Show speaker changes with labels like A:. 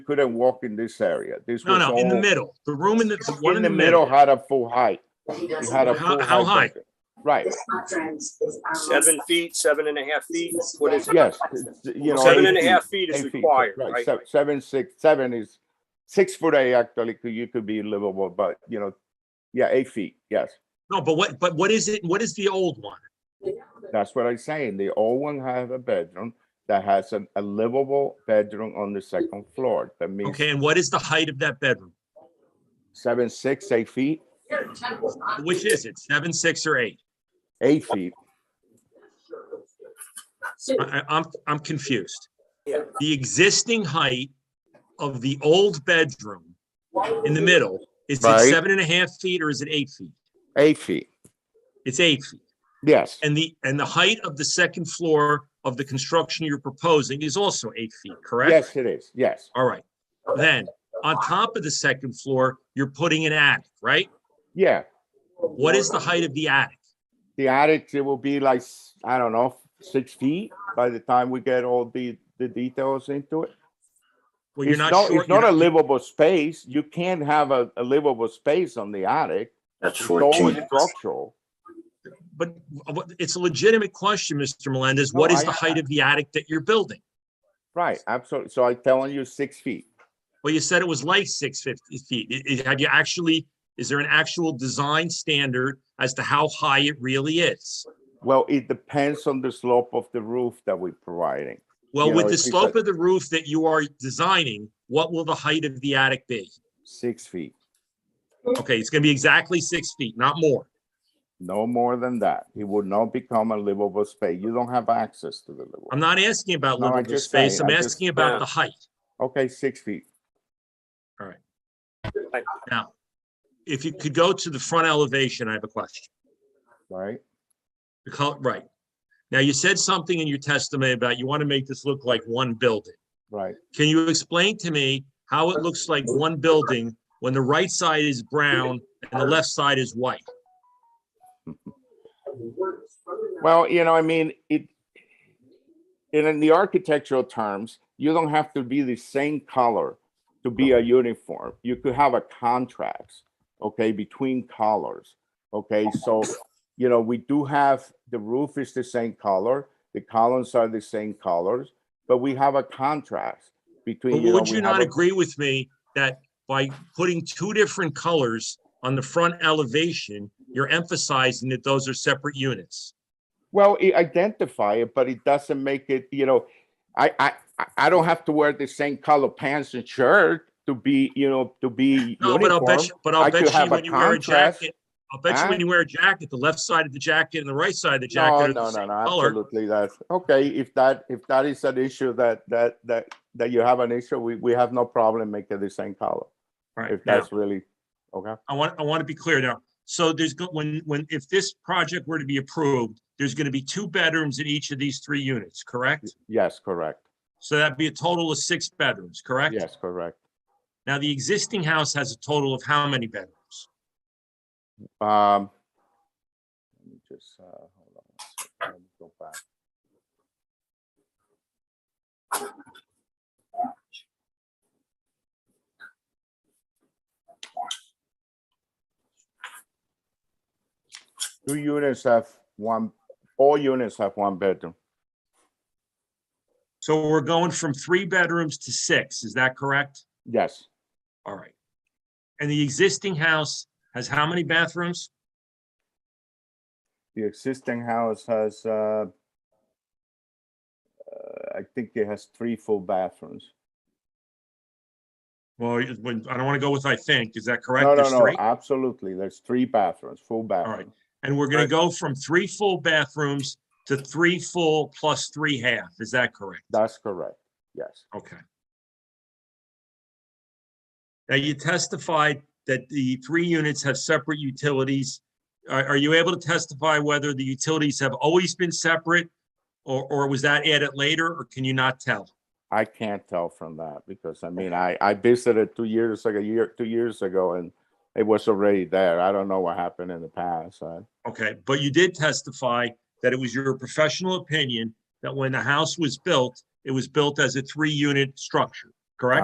A: couldn't walk in this area. This
B: No,
A: was
B: no, in the
A: all-
B: middle. The room in the, the one
A: In the middle had a full height. It had a
B: How-
A: full
B: how high?
A: height. Right,
C: Seven feet, seven and a half feet, what is it?
A: yes, you know.
C: Seven
A: eight
C: and a
A: feet,
C: half feet is
A: eight feet,
C: required, right?
A: se- Seven, six, seven is, six foot eight actually, could- you could be livable, but you know, yeah, eight feet, yes.
B: No, but what, but what is it? What is the old one?
A: That's what I'm saying. They all one have a bedroom that has an- a livable bedroom on the second floor. That means
B: Okay, and what is the height of that bedroom?
A: seven, six, eight feet,
B: Which is it? Seven, six, or eight?
A: eight feet.
B: I, I- I'm, I'm confused.
C: Yeah.
B: The existing height of the old bedroom in the middle, is it
A: Right.
B: seven and a half feet or is it eight feet?
A: Eight feet,
B: It's eight feet.
A: yes,
B: And the, and the height of the second floor of the construction you're proposing is also eight feet, correct?
A: yes, it is, yes,
B: All right. Then, on top of the second floor, you're putting an attic, right?
A: yeah.
B: What is the height of the attic?
A: The attic, it will be like, s- I don't know, six feet by the time we get all the, the details into it.
B: Well, you're
A: It's
B: not
A: no-
B: sure.
A: It's
B: you're
A: not a livable space. You can't have a, a livable space on the attic.
D: That's
A: It's always
D: 14.
A: structural.
B: But what- it's a legitimate question, Mr. Melendez.
A: No,
B: What is
A: I-
B: the height of the attic that you're building?
A: Right, absolutely. So I'm telling you, six feet.
B: Well, you said it was like six fifty feet. I- I- Have you actually, is there an actual design standard as to how high it really is?
A: Well, it depends on the slope of the roof that we're providing.
B: Well,
A: You
B: with
A: know,
B: the
A: it's- it's
B: slope
A: like-
B: of the roof that you are designing, what will the height of the attic be?
A: Six feet,
B: Okay, it's gonna be exactly six feet, not more.
A: no more than that. It would not become a livable space. You don't have access to the
B: I'm
A: livable.
B: not asking about
A: No, I
B: livable
A: just
B: space.
A: say-
B: I'm
A: I just-
B: asking about
C: yeah.
B: the height.
A: Okay, six feet.
B: If you could go to the front elevation, I have a question.
A: Right,
B: The color, right. Now, you said something in your testimony about you want to make this look like one building.
A: right.
B: Can you explain to me how it looks like one building when the right side is brown and the left side is white?
A: Well, you know, I mean, it, and in the architectural terms, you don't have to be the same color to be a uniform. You could have a contrast, okay, between colors. Okay, so, you know, we do have, the roof is the same color, the columns are the same colors, but we have a contrast
B: But
A: between. know,
B: would
A: we
B: you
A: have
B: not
A: a-
B: agree with me that by putting two different colors on the front elevation, you're emphasizing that those are separate units?
A: Well, it identify it, but it doesn't make it, you know, I, I, I- I don't have to wear the same color pants and shirt to be, you know, to be
B: No, but I'll
A: uniform.
B: bet you, but
A: I
B: I'll
A: could
B: bet
A: have
B: you
A: a
B: when you wear a
A: contrast.
B: jacket, I'll bet you
A: Huh?
B: when you wear a jacket, the left side of the jacket and the right side of the
A: No,
B: jacket are
A: no,
B: the
A: no,
B: same
A: no,
B: color.
A: absolutely, that's, okay, if that, if that is an issue that, that, that, that you have an issue, we, we have no problem making the same color.
B: Right,
A: If
B: now-
A: that's really, okay,
B: I want, I want to be clear now. So there's, go- when, when, if this project were to be approved, there's going to be two bedrooms in each of these three units, correct?
A: yes, correct,
B: So that'd be a total of six bedrooms, correct?
A: yes, correct.
B: Now, the existing house has a total of how many bedrooms?
A: Um. Let me just, uh, hold on. a second, Let me go back. Two units have one, all units have one bedroom.
B: So we're going from three bedrooms to six, is that correct?
A: Yes,
B: All right. And the existing house has how many bathrooms?
A: the existing house has, uh, uh, I think it has three full bathrooms.
B: Well, it- when- I don't want to go with I think, is that correct?
A: No, no,
B: There's
A: no,
B: three?
A: absolutely. There's three bathrooms, full bathrooms.
B: And we're going to go from three full bathrooms to three full plus three half, is that correct?
A: That's correct, yes.
B: Okay. Now, you testified that the three units have separate utilities. Are, are you able to testify whether the utilities have always been separate? Or, or was that added later, or can you not tell?
A: I can't tell from that because I mean, I, I visited two years ago, year, two years ago and it was already there. I don't know what happened in the past. I-
B: Okay, but you did testify that it was your professional opinion that when the house was built, it was built as a three-unit structure.